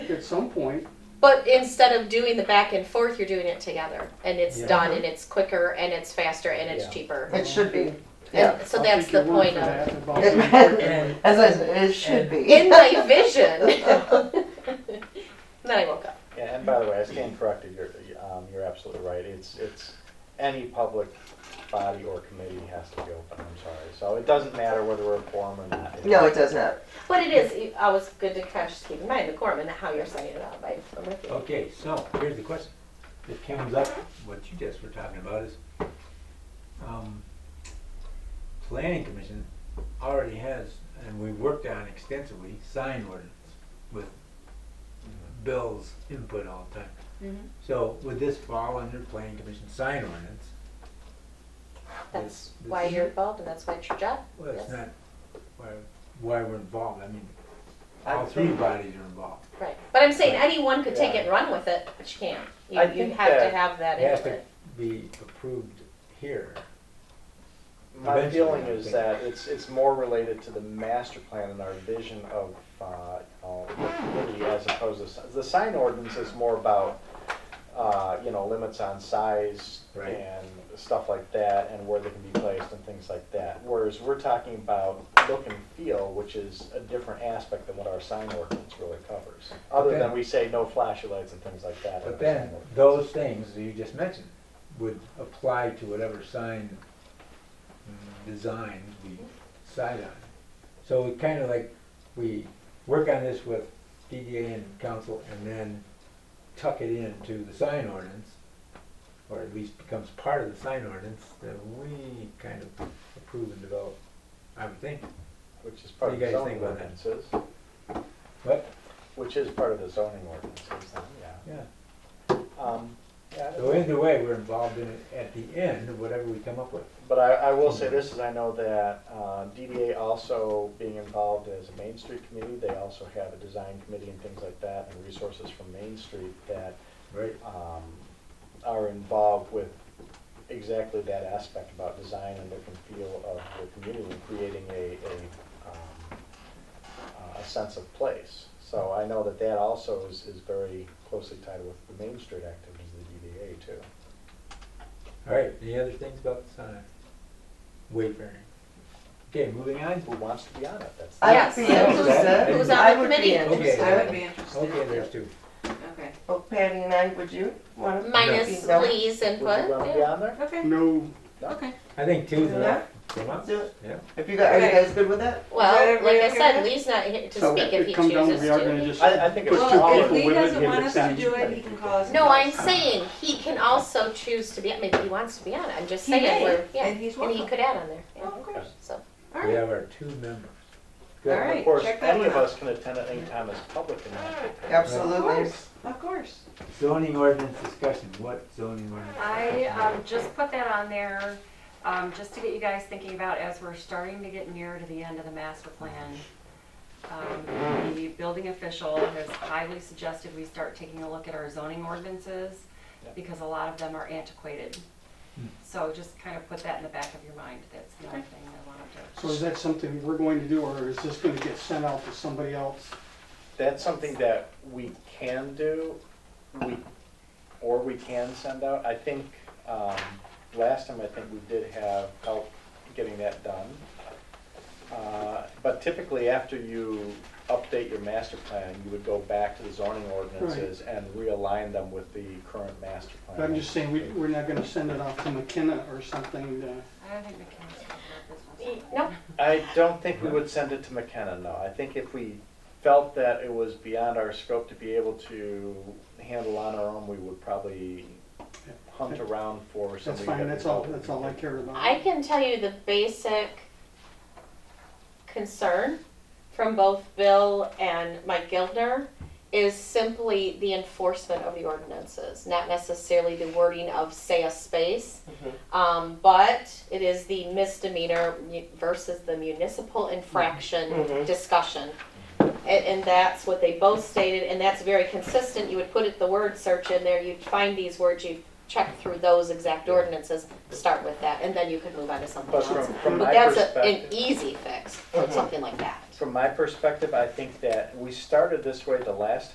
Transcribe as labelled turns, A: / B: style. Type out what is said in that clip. A: at some point.
B: But instead of doing the back and forth, you're doing it together, and it's
C: Yeah.
B: done, and it's quicker, and it's faster, and it's
C: Yeah.
B: cheaper.
A: uh,
D: It should be. Yeah.
B: And so
A: I'll
B: that's
A: take
B: the
A: your word
B: point
A: for
B: of
A: that about being quick and-
D: And As I said, it should be.
B: in my vision. then I woke up.
C: Yeah, and by the way, I stand corrected, you're, um, you're absolutely right, it's, it's, any public body or committee has to be open, I'm sorry. So it doesn't matter whether we're a forum or not.
D: No, it does not.
B: But it is I was good to kind of just keep in mind the quorum and how you're setting it up. I, I'm with you.
E: Okay, so here's the question that comes up, what you just were talking about is, um, planning commission already has, and we worked on extensively, sign ordinance with Bill's input all the time.
B: Mhm.
E: So would this fall under planning commission sign ordinance?
B: That's
E: This-
B: why
E: this-
B: you're involved, and that's why it's your job.
E: Well,
B: yes.
E: it's not why, why we're involved, I mean, all three bodies are involved.
B: Right. But I'm saying anyone could take it and run with it, but you can't. You,
C: I
B: you
C: think
B: have to
C: that-
B: have that
E: It has
B: input.
E: to be approved here.
C: My
E: Eventually,
C: feeling
E: I
C: is
E: think.
C: that it's, it's more related to the master plan and our vision of, uh, you know, community as opposed to, si- the sign ordinance is more about, uh, you know, limits on size
E: Right.
C: and stuff like that, and where they can be placed and things like that. Whereas we're talking about look and feel, which is a different aspect than what our sign ordinance really covers. Other than
E: then-
C: we say no flashing lights and things like that. in
E: But
C: our sign
E: then,
C: ordinance.
E: those things that you just mentioned would apply to whatever sign mm, design we decide on. So we kind of like, we work on this with DDA and council and then tuck it into the sign ordinance, or at least becomes part of the sign ordinance that we kind of approve and develop, I would think.
C: Which is part
E: What
C: of
E: do
C: the
E: you guys think
C: zoning
E: about that?
C: ordinances,
E: But,
C: which is part of the zoning ordinances, then,
E: yeah,
C: yeah. Um, yeah,
E: so either way, we're involved in it at the end, of whatever we come up with.
C: But I, I will say this, is I know that uh, DDA also being involved as a Main Street committee, they also have a design committee and things like that, and resources from Main Street that
E: Right.
C: um, are involved with exactly that aspect about design and look and feel of the community, creating a, a, um, uh, a sense of place. So I know that that also is, is very closely tied with the Main Street activities of the DDA too.
E: All right, any other things about the sign? Wayfaring. Okay, moving on.
C: Who wants to be on it? That's.
D: I
B: Yes.
D: would be
E: Who's
D: interested.
E: on-
B: who's on
D: I
B: the
D: would be
B: committee?
E: Okay.
D: interested.
F: I would be interested.
E: Okay, there's two.
F: Okay.
D: Well, Patty and I, would you want to?
B: Minus
D: No.
B: Lee's input.
C: Would you want to be
B: yeah.
C: on there?
F: Okay.
A: No,
F: Okay.
E: I think two's
D: Yeah.
E: enough. Come on.
D: Do it.
E: Yeah.
D: If you guys, are you
F: Okay.
D: guys good with that?
B: Well,
F: Is that
B: like I
F: everybody okay
B: said,
F: with
B: Lee's not here to
A: so
B: speak if
A: if
B: he
A: it comes down,
B: chooses
A: we are gonna
B: to.
A: just
C: I, I think it's
A: Put
C: just
A: two
C: all
F: Well, if
A: people
C: of
F: Lee
A: with it,
F: doesn't
A: give
F: want
A: it
F: us to
A: sound.
F: do it, he can call us.
B: No, I'm saying he can also choose to be, maybe he wants to be on it, I'm just
F: He
B: saying,
F: may,
B: we're, yeah,
F: and he's
B: and he
F: welcome.
B: could add on there, yeah,
F: Oh, of course.
B: so.
F: All
E: We
F: right.
E: have our two members.
F: All
C: And
F: right.
C: Of course,
F: Check that
C: any of
F: one out.
C: us can attend at any time as public. and not-
F: Of
D: Absolutely.
F: course. Of course.
E: Zoning ordinance discussion. What zoning ordinance?
G: I um, just put that on there, um, just to get you guys thinking about as we're starting to get near to the end of the master plan. Um, The building official has highly suggested we start taking a look at our zoning ordinances because a lot of them are antiquated.
A: Hmm.
G: So just kind of put that in the back of your mind. That's the only thing I wanted to.
A: So is that something we're going to do, or is this gonna get sent out to somebody else?
C: That's something that we can do, we, or we can send out. I think, um, last time I think we did have help getting that done. Uh, But typically, after you update your master plan, you would go back to the zoning ordinances and realign them with the current master plan.
A: But I'm just saying, we, we're not gonna send it off to McKenna or something, uh,
G: I don't think McKinnon's gonna do this
B: No,
G: one.
C: I don't think we would send it to McKenna, no. I think if we felt that it was beyond our scope to be able to handle on our own, we would probably hunt around for
A: that's
C: somebody.
A: fine,
C: that
A: that's
C: we
A: all,
C: felt
A: that's
C: we
A: all I
C: could-
A: cared about.
B: I can tell you the basic concern from both Bill and Mike Gildner is simply the enforcement of the ordinances, not necessarily the wording of say a space. Um, but it is the misdemeanor mu- versus the municipal infraction
D: Mhm.
B: discussion. And, and that's what they both stated, and that's very consistent. You would put it, the word search in there, you'd find these words, you'd check through those exact ordinances, start with that, and then you could move on to something
C: But
B: else.
C: from, from
B: But
C: my
B: that's a-
C: perspective. Uh-huh.
B: an e easy fix, for
D: Mhm.
B: something like that.
C: From my perspective, I think that we started this way the last